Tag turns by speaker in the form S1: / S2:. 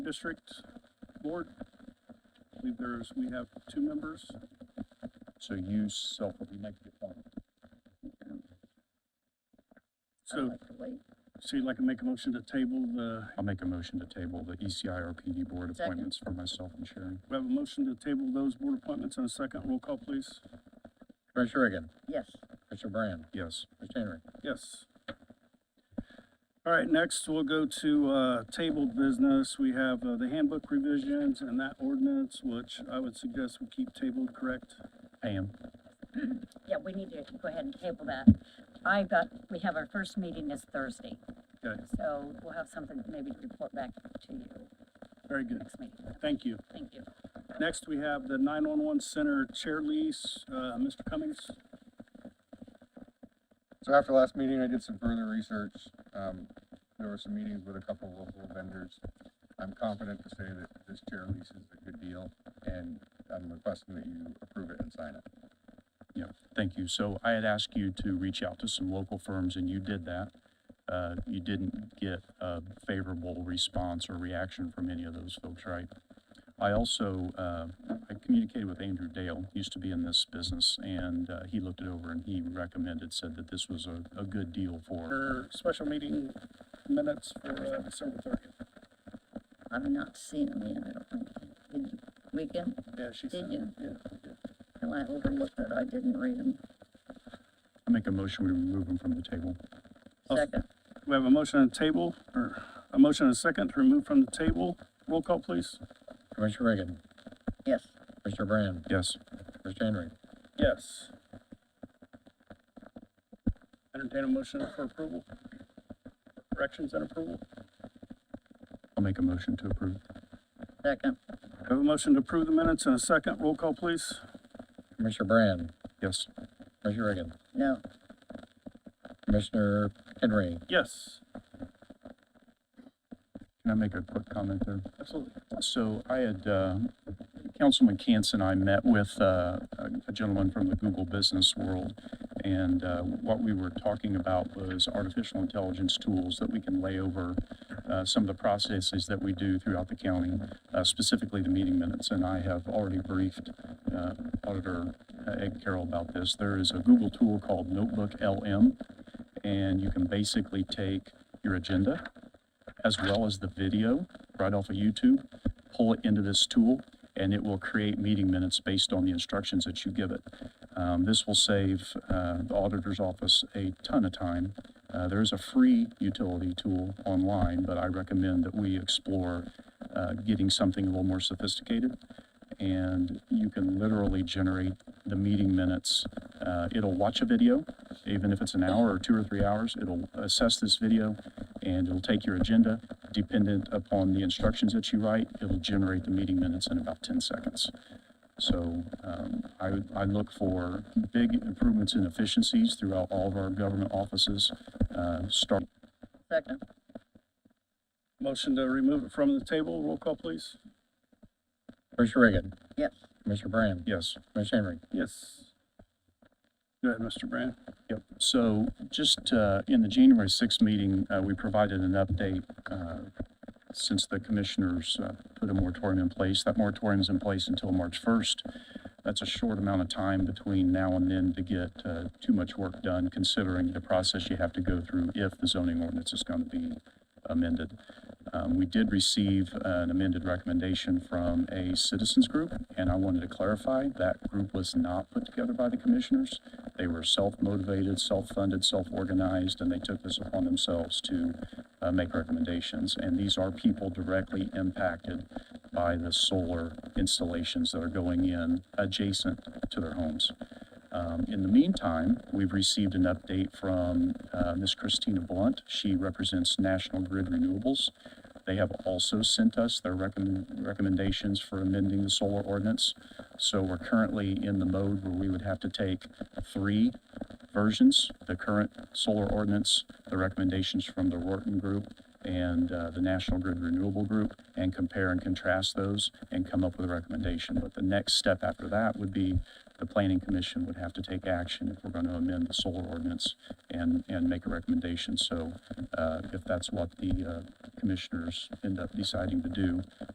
S1: district board. I believe there's, we have two members.
S2: So you self-make the appointment.
S1: So, so you'd like to make a motion to table the,
S2: I'll make a motion to table the E ECIRPD board
S3: Second.
S2: appointments for myself and Sharon.
S1: we have a motion to table those board appointments in a second. Roll call, please.
S4: Commissioner Reagan,
S3: Yes,
S4: Commissioner Brand,
S2: Yes,
S4: Commissioner Henry.
S1: Yes. All right, next we'll go to, uh, tabled business. We have, uh, the handbook revisions and that ordinance, which I would suggest we keep tabled, correct?
S2: Pam,
S3: yeah, we need to go ahead and table that. I got, we have our first meeting this Thursday,
S1: Okay,
S3: so we'll have something maybe to report back to you
S1: very good.
S3: next meeting.
S1: Thank you.
S3: Thank you.
S1: Next, we have the nine-one-one center chair lease, uh, Mr. Cummings.
S4: So after last meeting, I did some further research. Um, there were some meetings with a couple of local vendors. I'm confident to say that this chair lease is a good deal and I'm requesting that you approve it and sign it.
S2: yeah, thank you. So I had asked you to reach out to some local firms and you did that. Uh, you didn't get a favorable response or reaction from any of those folks, right? I also, uh, I communicated with Andrew Dale, used to be in this business, and, uh, he looked it over and he recommended, said that this was a, a good deal for.
S1: for special meeting minutes for uh, December thirtieth.
S5: I've not seen them yet, I don't think. Did you, weekend,
S1: Yeah, she
S5: Did
S1: said,
S5: you?
S1: yeah.
S5: and I overlooked it, I didn't read them.
S2: I make a motion, we remove them from the table.
S1: Oh.
S5: Second,
S1: We have a motion on the table, or a motion and a second to remove from the table. Roll call, please.
S4: Commissioner Reagan,
S5: yes,
S4: Commissioner Brand,
S2: Yes.
S4: Commissioner Henry.
S1: Yes. Entertain a motion for approval. Corrections and approval.
S2: I'll make a motion to approve.
S5: second,
S1: We have a motion to approve the minutes in a second. Roll call, please.
S4: Commissioner Brand,
S2: Yes.
S4: Commissioner Reagan,
S5: no,
S4: Commissioner Henry.
S1: Yes,
S2: Can I make a quick comment there?
S1: absolutely.
S2: So I had, uh, Councilman Cantz and I met with uh, a gentleman from the Google business world. And uh, what we were talking about was artificial intelligence tools that we can lay over uh, some of the processes that we do throughout the county, uh, specifically the meeting minutes. And I have already briefed uh, Auditor uh, Ed Carroll about this. There is a Google tool called Notebook LM. And you can basically take your agenda as well as the video right off of YouTube, pull it into this tool, and it will create meeting minutes based on the instructions that you give it. Um, this will save uh, the auditor's office a ton of time. Uh, there is a free utility tool online, but I recommend that we explore uh, getting something a little more sophisticated. And you can literally generate the meeting minutes. Uh, it'll watch a video, even if it's an hour or two or three hours. It'll assess this video and it'll take your agenda. Dependent upon the instructions that you write, it'll generate the meeting minutes in about 10 seconds. So um, I, I look for big improvements in efficiencies throughout all of our government offices. Uh, start,
S5: second,
S1: Motion to remove it from the table. Roll call, please.
S4: Commissioner Reagan.
S5: Yes.
S4: Commissioner Brand,
S2: yes.
S4: Commissioner Henry.
S1: Yes. Go ahead, Mr. Brand.
S2: Yep, so just uh, in the January 6th meeting, uh, we provided an update uh, since the commissioners uh, put a moratorium in place. That moratorium is in place until March 1st. That's a short amount of time between now and then to get uh, too much work done, considering the process you have to go through if the zoning ordinance is going to be amended. Um, We did receive an amended recommendation from a citizens group, and I wanted to clarify, that group was not put together by the commissioners. They were self-motivated, self-funded, self-organized, and they took this upon themselves to uh, make recommendations. And these are people directly impacted by the solar installations that are going in adjacent to their homes. Um, In the meantime, we've received an update from uh, Ms. Christina Blunt. She represents National Grid Renewables. They have also sent us their recommend- recommendations for amending the solar ordinance. So we're currently in the mode where we would have to take three versions, the current solar ordinance, the recommendations from the Rorton Group and uh, the National Grid Renewable Group, and compare and contrast those and come up with a recommendation. But the next step after that would be the Planning Commission would have to take action if we're going to amend the solar ordinance and, and make a recommendation. So uh, if that's what the uh, commissioners end up deciding to do.